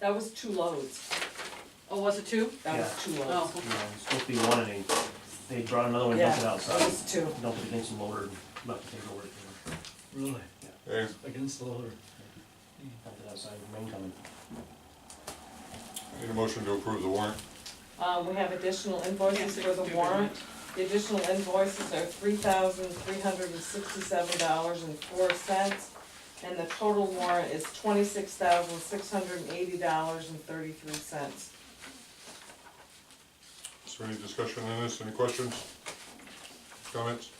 That was two loads. Oh, was it two? That was Yeah. two loads. Oh. You know, it's supposed to be one and they, they brought another one, dumped it Yeah, that outside, was two. dumped it against the loader, and left the paperwork, you know, Really? Yeah. Against the loader. dumped it outside, rain coming. Need a motion to approve the warrant? Um, we have additional invoices for the warrant. The additional invoices are three thousand three hundred and sixty-seven dollars and four cents. And the total warrant is twenty-six thousand six hundred and eighty dollars and thirty-three cents. Is there any discussion on this, any questions? Comments?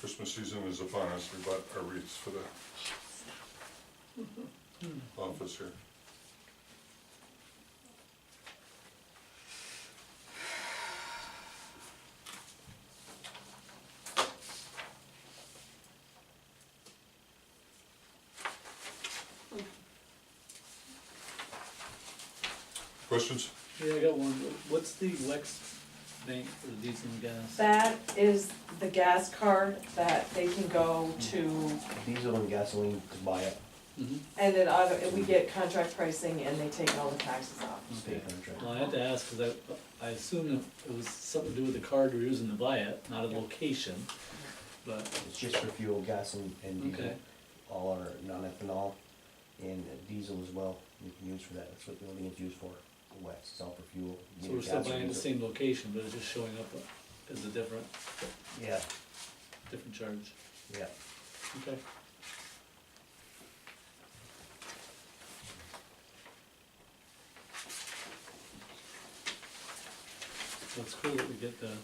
Christmas season is upon us, we bought our wreaths for the office here. Questions? Yeah, I got one. What's the Lex bank for diesel and gas? That is the gas card that they can go to, Diesel and gasoline to buy it, Mhm. and then either, we get contract pricing and they take all the taxes off. state Okay. contract. Well, I had to ask, cause I, I assumed it was something to do with the card we were using to buy it, not a location. But, It's just for fuel, gas and, and diesel, okay, all our non-ethanol and diesel as well, you can use for that, that's what the building is used for, the wax, it's all for fuel. so either we're still gas or buying the diesel. same location, but it's just showing up as a different, Yeah, different charge. yeah, Okay. That's cool that we get the, Uh,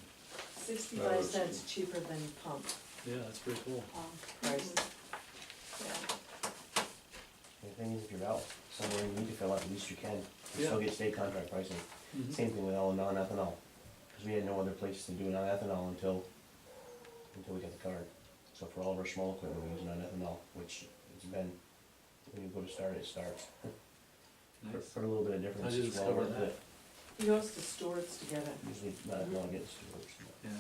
Sixty-five it's- cents cheaper than pump yeah, that's pretty cool. um, price. the thing is, if you're out somewhere, you need to fill out the least you can, you still Yeah. get state contract pricing. Mhm. Same thing with all non-ethanol, because we had no other place to do non-ethanol until, until we got the card. So for all of our small equipment, we use non-ethanol, which it's been, when you go to start, it starts. For, Nice. for a little bit of I difference, just it's well worth discovered it. He goes to Stewart's to get it. Usually non-ethanol gets to work. Yeah,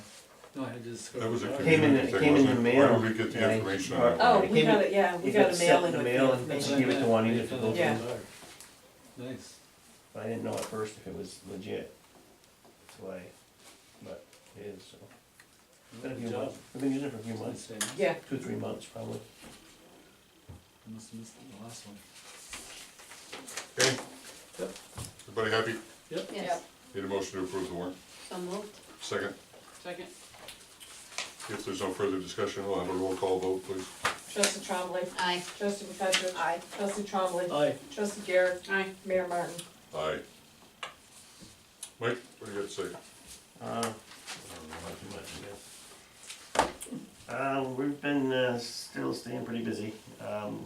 no, I just. That was a Came in- community it thing, came in wasn't the it? Where mail, did we get and the I- information on that? Oh, it we came got in- it, yeah, we it got gets a sent mailing in with the the mail and- information. She gave it to Juanita for both Yeah. Nice, But I didn't know at first if it was legit, that's why, but it is, so. Been a good few job. months, we've been using it for a few months, Nice savings. Yeah, two, three months probably. I must have missed the last one. Okay, Yep. everybody happy? Yep, Yes, Need a motion to approve the warrant? so moved. Second, Second. if there's no further discussion, we'll have a roll call vote, please. trustee Trombley, Aye. trustee McFetrich. Aye. Trustee Trombley, aye, trustee Garrett, Aye. Mayor Martin. Aye. Mike, what do you got to say? Uh, I don't know, not too much, yeah. Uh, we've been, uh, still staying pretty busy, um,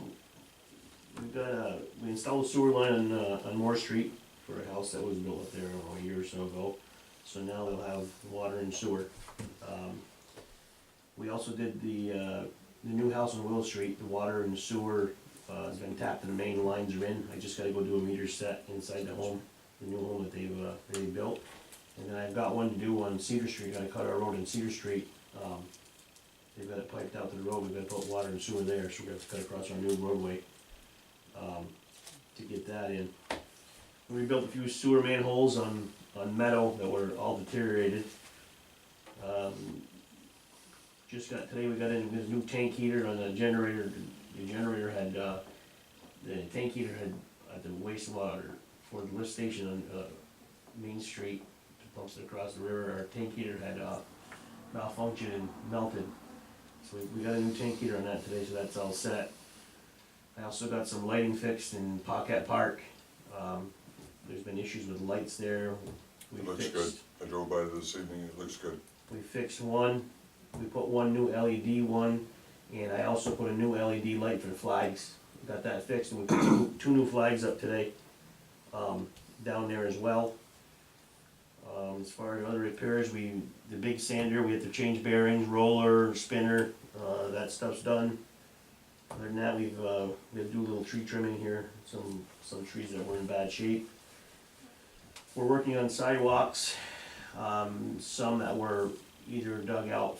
we've got, uh, we installed a sewer line on, uh, on Moore Street for a house that was built up there a year or so ago, so now they'll have water and sewer. Um, We also did the, uh, the new house on Willow Street, the water and sewer, uh, has been tapped and the main lines are in, I just gotta go do a meter set inside the home, the new home that they've, uh, they built. And then I've got one to do on Cedar Street, gotta cut our road in Cedar Street, um, they've got it piped out to the road, we've gotta put water and sewer there, so we're gonna have to cut across our new roadway, um, to get that in. We built a few sewer manholes on, on metal that were all deteriorated. Um, Just got, today we got in this new tank heater on the generator, the generator had, uh, the tank heater had, at the wastewater for the lift station on, uh, Main Street, pumps it across the river, our tank heater had, uh, malfunctioned and melted. So we, we got a new tank heater on that today, so that's all set. I also got some lighting fixed in Pocket Park, um, there's been issues with lights there, we It fixed. looks good. I drove by this evening, it looks good. We fixed one, we put one new LED one, and I also put a new LED light for the flags. Got that fixed, and we put two, two new flags up today, um, down there as well. Um, as far as other repairs, we, the big sander, we had to change bearings, roller, spinner, uh, that stuff's done. Other than that, we've, uh, we had to do a little tree trimming here, some, some trees that were in bad shape. We're working on sidewalks, um, some that were either dug out